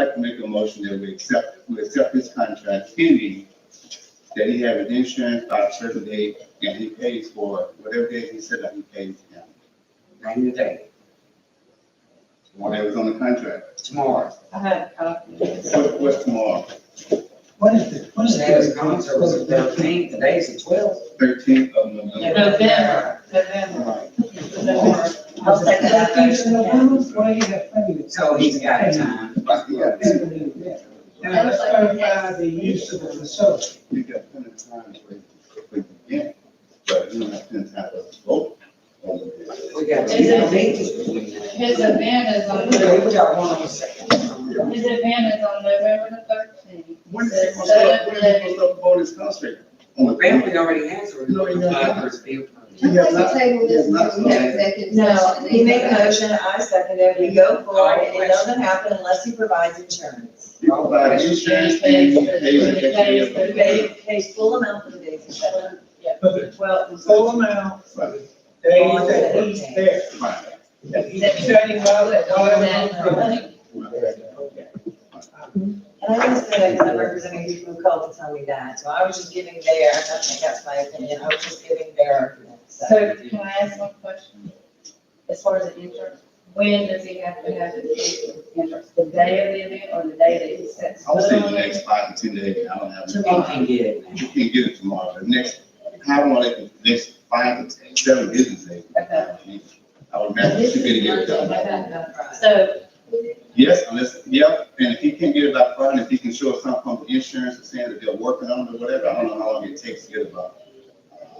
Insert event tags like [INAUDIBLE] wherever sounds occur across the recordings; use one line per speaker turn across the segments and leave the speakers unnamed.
like to make a motion that we accept, we accept this contract pending that he have an insurance by a certain date and he pays for it, whatever day he said that he pays him.
ninety day,
Whatever's on the contract.
tomorrow.
I had a copy.
What, what's tomorrow?
What is the, what is
Today was gone, so it was the
the?
thirteenth, today is the twelfth.
Thirteenth of November.
November, November,
Right.
November.
I'll say that. Why you got plenty of-
So he's got a time.
Yeah.
Now, let's clarify the use of the facility.
You got plenty of time to wait, wait again, but you don't have plenty of time to vote. on it.
We got
Is
two
it-
meetings.
His event is on,
Okay, We
the-
got one on the second.
his event is on November the thirteenth.
When is he gonna start, when is he gonna start the voting contract? On the
Family already answered.
No, he doesn't.
I'm going to table this, because we have executive
No,
session.
he made a motion, I second it, we go for it, it doesn't happen unless he provides insurance.
You provide insurance, and you pay the extra
He
bill.
paid, pays full amount for the days he shut down.
But the
Well, it was-
full amount for the days that he's there.
Right.
That he's shutting down that dollar.
And I was there because I'm representing people who called to tell me that, so I was just giving their, I think that's my opinion, I was just giving their argument, so.
So can I ask one question? As far as the insurance, when does he have to have his insurance? The day of the event or the day that he sets?
I would say the
foot on it?
next five to ten days, I don't have.
You can get it now.
You can get it tomorrow, the next, how long, like, the next five to ten, seven business days. I would imagine you could get it done.
So,
Yes, unless, yep, and if he can get it by Friday, if he can show us something from the insurance, or saying that they're working on it or whatever, I don't know how long it takes to get it by,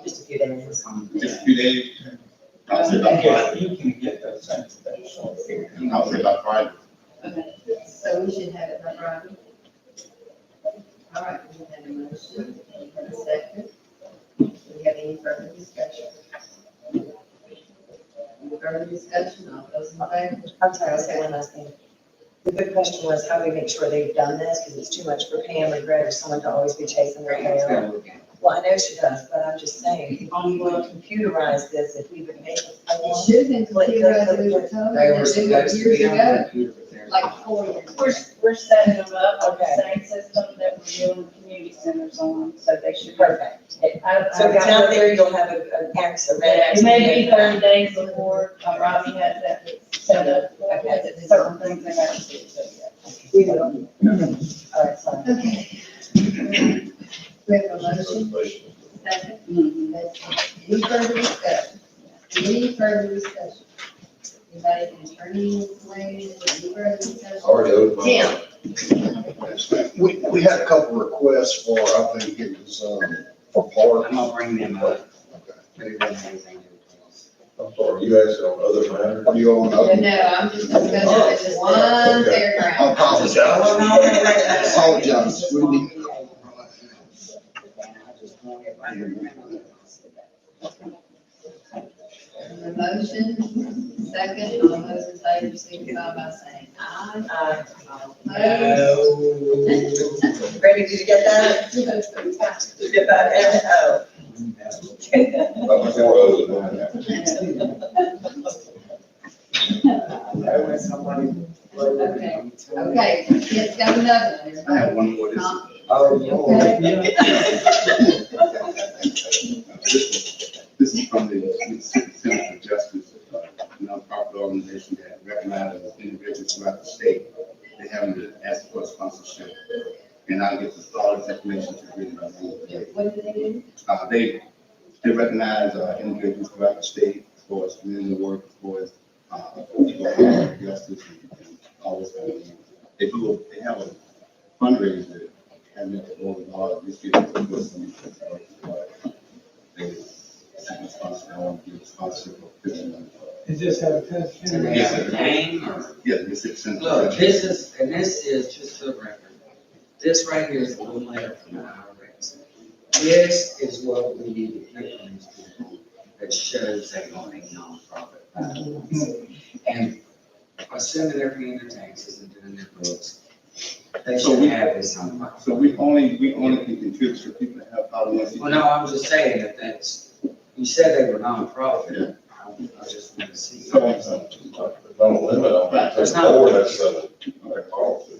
Just a few days.
just a few days. I would say by Friday,
You can get those things.
I would say by Friday.
okay,
So we should have it by Friday. All right, we have a motion, we have a second. Do we have any further discussion? Any Further discussion, all those in favor?
I'm sorry, I was saying one last thing. The good question was, how do we make sure they've done this, because it's too much for Pam or Greg or someone to always be chasing their
It's
tail.
gotta look at it.
Well, I know she does, but I'm just saying, if we would computerize this, if we would make it.
It should have been computerized, we were told
They were
that they were
supposed to
years
be on
ago,
the computer, but they're.
like four years.
we're, we're setting them up on the
Okay.
same system that we're doing the community centers on, so they should.
Perfect.
I- I
So it's
got-
out there, you'll have a, an X, a red
Yeah,
X.
maybe thirty days before, uh, Robbie has that set up, has it certain things they have to do.
We will. All right, so.
Okay. We have a motion, second.
Mhm.
That's it. Any further discussion? Any further discussion? Anybody can turn in, please, any further discussion? Tim,
We, we had a couple requests for, I think it was, um, for
I'm
parks.
gonna bring them up.
Okay.
But it doesn't have anything to do with us.
I'm sorry, you asked on other matters?
Are you on up?
no, I'm just discussing with this one
I
paragraph.
Well,
apologize.
no, wait, wait, wait.
Apologize. We need-
And I just want everybody to remember that.
The motion, second, all those in favor, signify by saying aye.
Uh,
Aye.
Brady, did you get
[LAUGHS]
that? Did you get that? Aaron? Oh. Okay.
About four other matters.
I know when somebody.
Okay. Okay, yes, got another one.
I
everybody.
have one more, this,
Um,
Oh, Lord.
This one- this is from the Mississippi Center for Justice, uh, nonprofit organization that recognizes individuals throughout the state. They have to ask for sponsorship. And I'll get the solid information to read about it.
What did they do?
Uh, they, they recognize, uh, individuals throughout the state for its community work, for its, uh, equal justice and and all this kind of thing. They do, they have a fundraiser, and it's all in all, these people who put some, uh, they, seek a sponsor, I want to give a sponsor for fifteen months.
Is this how it
Do they
comes?
have a name or?
Yeah, this is.
Look, this is, and this is just for the record. This right here is one letter from the IRS. This is what we need to get from these people that shows they are a nonprofit. foundation. And assuming they're paying their taxes and doing their books, they
So
should
we-
have this on file.
So we only, we only can contribute for people that have, I want
Well, no, I'm just saying that that's, you said they were nonprofit. I I just want to see.
So,
Don't limit on that,
That's
that's
not-
four, that's seven, like, policy.